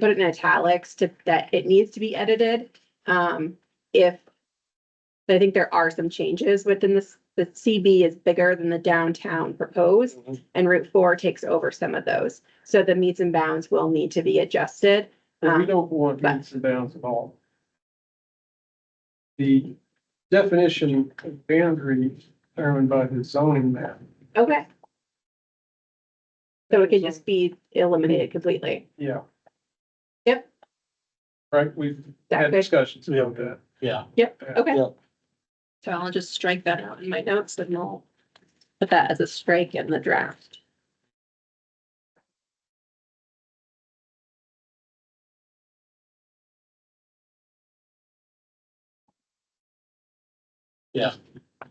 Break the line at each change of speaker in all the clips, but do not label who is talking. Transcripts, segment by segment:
put it in italics to, that it needs to be edited. Um, if, I think there are some changes within this, the CB is bigger than the downtown proposed and Route Four takes over some of those. So the meets and bounds will need to be adjusted.
But we
Um,
don't want
but-
meets and bounds at all. The definition of boundary determined by the zoning map.
Okay. So it could just be eliminated completely.
Yeah.
Yep.
Right, we've
That
had
good?
discussions about that.
Yeah.
Okay.
Yep.
So I'll just strike that out in my notes and I'll put that as a strike in the draft.
Yeah,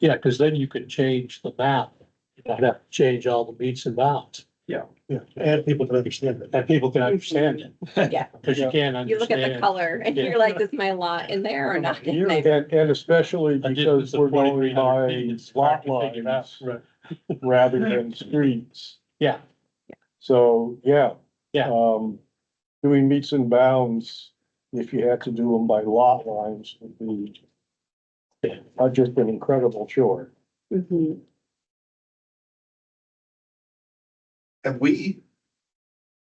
because then you could change the map. You don't have to change all the meets and bounds.
Yeah.
Yeah, and people can understand it. And people can understand it.
Yeah.
Because you can't understand.
You look at the color and you're like, is my lot in there or not in there?
And, and especially
I did
because
this
we're
at 2300
going by
feet, it's hard
lot
to figure it
lines
out.
rather than streets.
Yeah.
So, yeah.
Yeah.
Um, doing meets and bounds, if you had to do them by lot lines would be uh, just an incredible chore.
Mhm.
Have we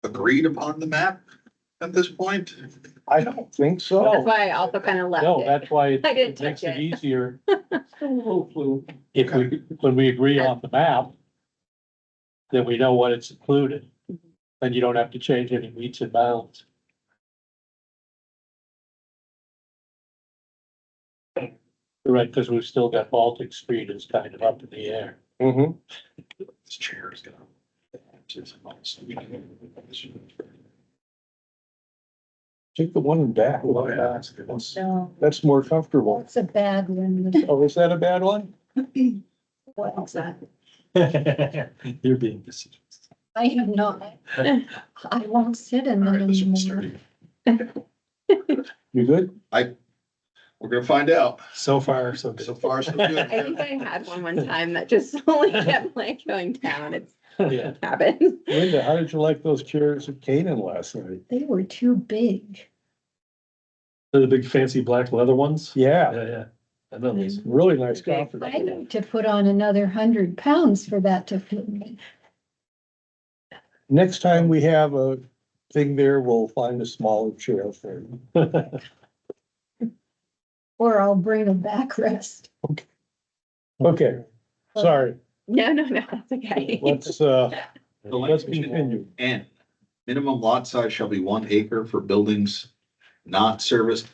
agreed upon the map at this point?
I don't think
That's
so.
why I also kind of left
No,
it.
that's why it
I didn't
it makes
touch
it
it.
easier
Hopefully,
if we, when we agree on the map, then we know what it's included.
Mm-hmm.
And you don't have to change any meets and bounds. Right, because we've still got Baltic Street is kind of up in the air.
Mm-hmm.
This chair is gonna.
Take the one in back.
Oh, yeah, that's a good one.
No,
That's more comfortable.
that's a bad one.
Oh, is that a bad one?
What's that?
You're being deceived.
I have not. I won't sit in
All
that
right, this one's
anymore.
sturdy.
You good?
We're gonna find out.
So far, so
So far, so
I think
good.
I had one one time that just slowly kept like going down. It's
Yeah,
happened.
Linda, how did you like those chairs at Canaan last night?
They were too big.
the big fancy black leather ones.
Yeah,
yeah. I know
those.
really nice
Big.
conference.
I need to put on another hundred pounds for that to fit me.
Next time we have a thing there, we'll find a smaller chair for you.
Or I'll bring a backrest.
Okay, sorry,
No, no, no, that's okay.
let's, uh, let's continue.
And minimum lot size shall be one acre for buildings not serviced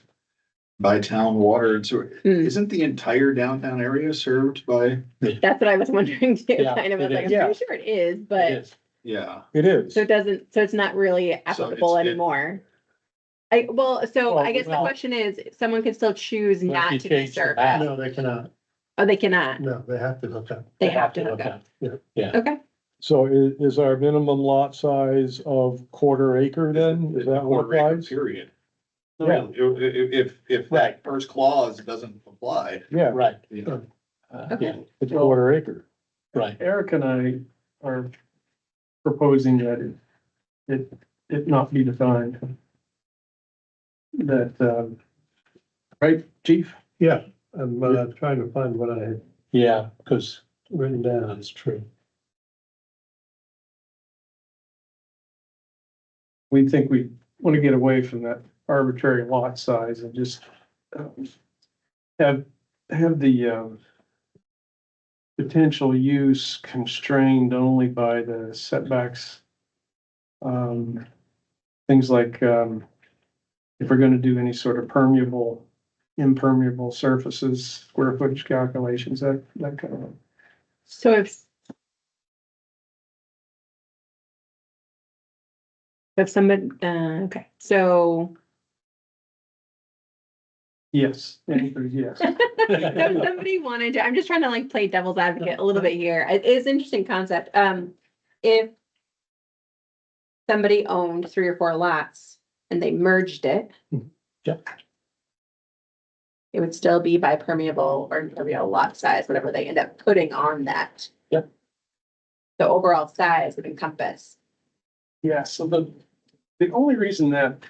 by town water and sewer.
Hmm,
Isn't the entire downtown area served by,
That's what I was wondering too,
Yeah,
kind of, I was
it
like, I'm
is.
pretty sure it is, but,
yeah,
It is.
so it doesn't, so it's not really applicable
it-
anymore. I, well, so
Well,
I guess the
well-
question is, someone could still choose
Well, if you
not to be
change the
served,
map-
No, they cannot.
oh, they cannot,
No, they have to hook up.
they have to hook up, okay,
So is, is our minimum lot size of quarter acre then? Is that what
Quarter acre
applies?
Period.
Yeah.
If, if, if that first clause doesn't apply,
Yeah,
Right,
you know,
uh,
Okay.
yeah,
it's quarter acre.
right.
Eric and I are proposing that it, it, it not be defined. That, um, right, chief?
Yeah, I'm uh, trying to find what I had
Yeah, because
written down.
that's true.
we think we want to get away from that arbitrary lot size and just um, have, have the um, potential use constrained only by the setbacks. Um, Things like um, if we're going to do any sort of permeable, impermeable surfaces, square footage calculations, that, that kind of.
so if. If somebody, uh, okay, so.
Yes, the answer is yes.
So if somebody wanted to, I'm just trying to like play devil's advocate a little bit here. It is an interesting concept. Um, if somebody owned three or four lots and they merged it.
Yeah.
It would still be by permeable or impermeable lot size, whatever they end up putting on that.
Yeah.
The overall size would encompass.
Yeah, so the, the only reason that